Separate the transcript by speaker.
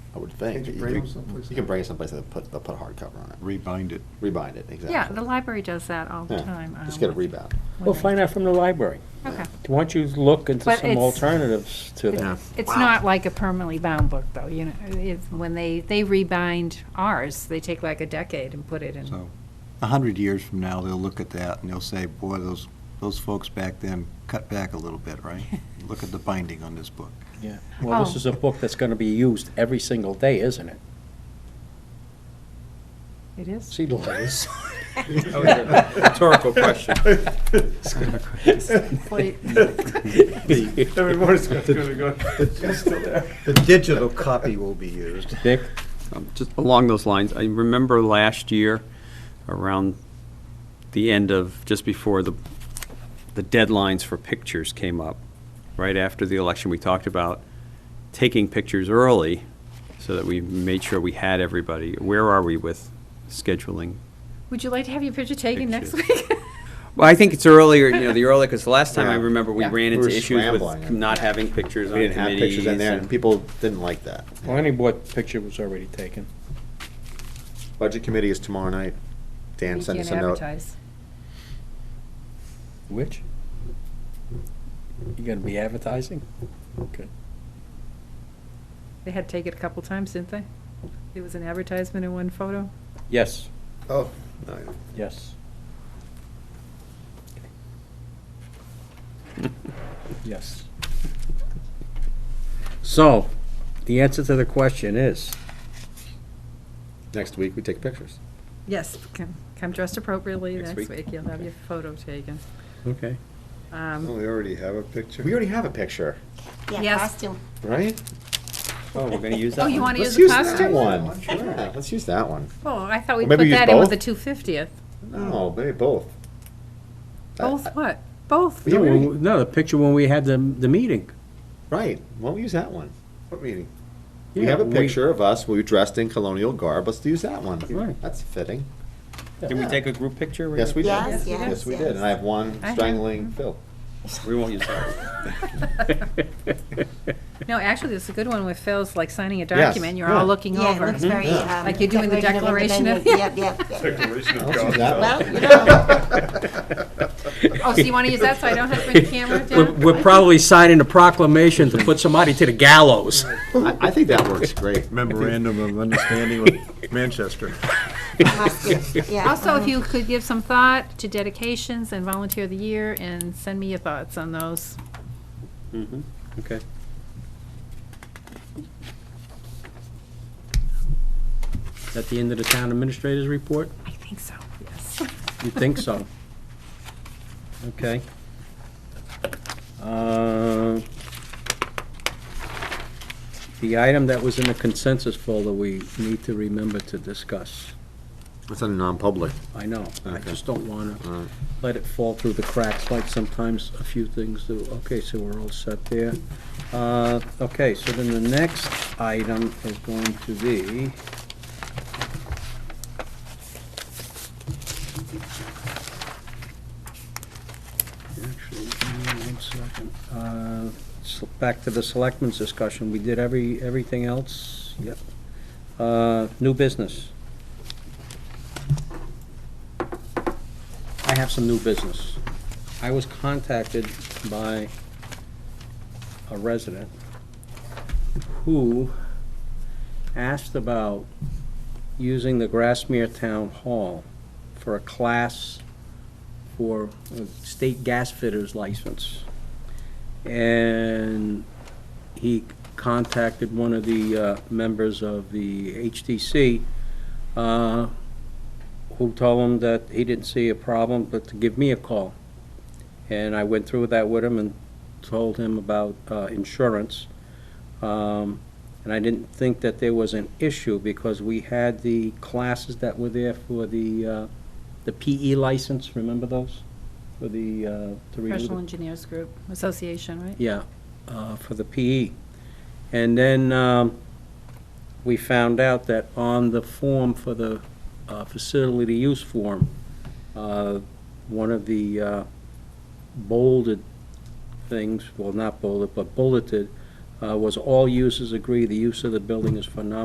Speaker 1: I would think.
Speaker 2: Can't you
Speaker 1: You
Speaker 2: bring
Speaker 1: could-
Speaker 2: them someplace?
Speaker 1: You can bring it someplace that put, that put a hardcover on it,
Speaker 3: Rebind it.
Speaker 1: rebind it, exactly.
Speaker 4: Yeah, the library does that all the
Speaker 1: Yeah,
Speaker 4: time. um,
Speaker 1: Just get a
Speaker 4: with-
Speaker 1: rebound.
Speaker 4: with
Speaker 5: We'll
Speaker 4: it.
Speaker 5: find out from the library.
Speaker 4: Okay.
Speaker 5: Why don't you look into
Speaker 4: But
Speaker 5: some
Speaker 4: it's-
Speaker 5: alternatives to that?
Speaker 4: It's it's not like a permanently bound book, though, you know, it's, when they, they rebind ours, they take like a decade and put it in.
Speaker 3: So, a hundred years from now, they'll look at that and they'll say, boy, those, those folks back then cut back a little bit, right? Look at the binding on this book.
Speaker 5: Yeah. Well, this
Speaker 4: Oh.
Speaker 5: is a book that's gonna be used every single day, isn't it?
Speaker 4: It is.
Speaker 5: See, Liz.
Speaker 6: Oh, Rhetorical question.
Speaker 2: Everybody's got to go.
Speaker 3: The digital copy will be used.
Speaker 5: Dick,
Speaker 6: Um, Just along those lines, I remember last year, around the end of, just before the, the deadlines for pictures came up, right after the election, we talked about taking pictures early so that we made sure we had everybody. Where are we with scheduling?
Speaker 4: Would you like to have your picture taken next
Speaker 6: Pictures.
Speaker 4: week?
Speaker 6: Well, I think it's earlier, you know, the earlier, because the last time I
Speaker 1: Yeah.
Speaker 6: remember, we
Speaker 4: Yeah.
Speaker 6: ran
Speaker 1: We were
Speaker 6: into issues
Speaker 1: scrambling.
Speaker 6: with not having pictures on
Speaker 1: We didn't
Speaker 6: committees.
Speaker 1: have pictures in there, and
Speaker 6: and-
Speaker 1: people didn't like that.
Speaker 5: planning board picture was already taken.
Speaker 1: Budget committee is tomorrow night. Dan
Speaker 4: You
Speaker 1: sent us
Speaker 4: can't
Speaker 1: a note.
Speaker 4: advertise.
Speaker 5: Which? You gonna be advertising? Okay.
Speaker 4: They had to take it a couple times, didn't they? There was an advertisement in one photo.
Speaker 5: Yes,
Speaker 1: Oh, no, yeah.
Speaker 5: yes. Yes. So, the answer to the question is,
Speaker 1: next week we take pictures.
Speaker 4: Yes, come- come dressed appropriately
Speaker 1: Next
Speaker 4: next
Speaker 1: week.
Speaker 4: week, you'll have your photo taken.
Speaker 5: okay,
Speaker 4: Um,
Speaker 2: We already have a picture.
Speaker 1: We already have a picture,
Speaker 4: Yes.
Speaker 7: Yeah, costume.
Speaker 1: right?
Speaker 6: Oh, we're going to use that
Speaker 4: Oh,
Speaker 6: one?
Speaker 4: you want to
Speaker 1: Let's
Speaker 4: use the
Speaker 1: use that
Speaker 4: costume?
Speaker 1: one. Yeah, Let's use that one.
Speaker 4: Oh, I thought we
Speaker 1: Or maybe
Speaker 4: put
Speaker 1: use
Speaker 4: that in with the
Speaker 1: both?
Speaker 4: 250th.
Speaker 1: No, maybe both. I- I-
Speaker 4: Both what? Both?
Speaker 1: Yeah,
Speaker 5: no,
Speaker 1: we already-
Speaker 5: when- no, the picture when we had the, the meeting.
Speaker 1: Right, why don't we use that one?
Speaker 2: What meeting?
Speaker 1: We have a
Speaker 5: Yeah,
Speaker 1: picture of us, we dressed in colonial garb, let's use that one.
Speaker 5: Right.
Speaker 1: That's fitting.
Speaker 6: Did we take a group picture?
Speaker 1: Yes, we did.
Speaker 7: Yes,
Speaker 4: yes,
Speaker 1: Yes, we did,
Speaker 7: yes.
Speaker 1: and I have one
Speaker 4: I have-
Speaker 1: strangling Phil.
Speaker 6: We won't use that.
Speaker 4: No, actually, it's a good one with Phil's like signing a
Speaker 1: Yes,
Speaker 4: document, you're all
Speaker 1: yeah.
Speaker 4: looking
Speaker 7: Yeah, it
Speaker 4: over.
Speaker 7: looks very.
Speaker 1: Yeah.
Speaker 7: um,
Speaker 4: Like you're doing the
Speaker 7: decorative
Speaker 4: Declaration of-
Speaker 7: of Independence. Yep, yep, yep.
Speaker 2: Declaration of
Speaker 1: Let's use
Speaker 2: God.
Speaker 1: that one.
Speaker 7: Well, you know,
Speaker 4: Oh, so you want to use that so I don't have to bring the camera
Speaker 5: We're
Speaker 4: down?
Speaker 5: we're probably signing a proclamation to put somebody to the gallows.
Speaker 1: I, I think that works great.
Speaker 3: Memorandum of understanding with Manchester.
Speaker 7: costume, yeah.
Speaker 4: Also, if you could give some thought to dedications and volunteer of the year and send me your thoughts on those.
Speaker 6: Okay.
Speaker 5: Is that the end of the town administrator's report?
Speaker 4: I think so, yes.
Speaker 5: You think so? Okay. Uh, The item that was in the consensus folder, we need to remember to discuss.
Speaker 1: It's a non-public.
Speaker 5: I know, I
Speaker 1: Okay.
Speaker 5: just don't want
Speaker 1: All right.
Speaker 5: to let it fall through the cracks like sometimes a few things do. Okay, so we're all set there. Uh, Okay, so then the next item is going to be... Actually, give me one second. Uh, s- Back to the selectmen's discussion. We did every, everything else? Yep. Uh, New business. I have some new business. I was contacted by a resident who asked about using the Grassmere Town Hall for a class for a state gas fitters license. And he contacted one of the uh, members of the HTC uh, who told him that he didn't see a problem, but to give me a call. And I went through that with him and told him about uh, insurance. Um, And I didn't think that there was an issue because we had the classes that were there for the, uh, the PE license, remember those? For the, uh, to renew the-
Speaker 4: Professional Engineers Group Association, right?
Speaker 5: yeah, uh, for the PE. And then um, we found out that on the form for the uh, facility use form, uh, one of the uh, bolded things, well, not bolded, but bulleted, uh, was all users agree the use of the building is for non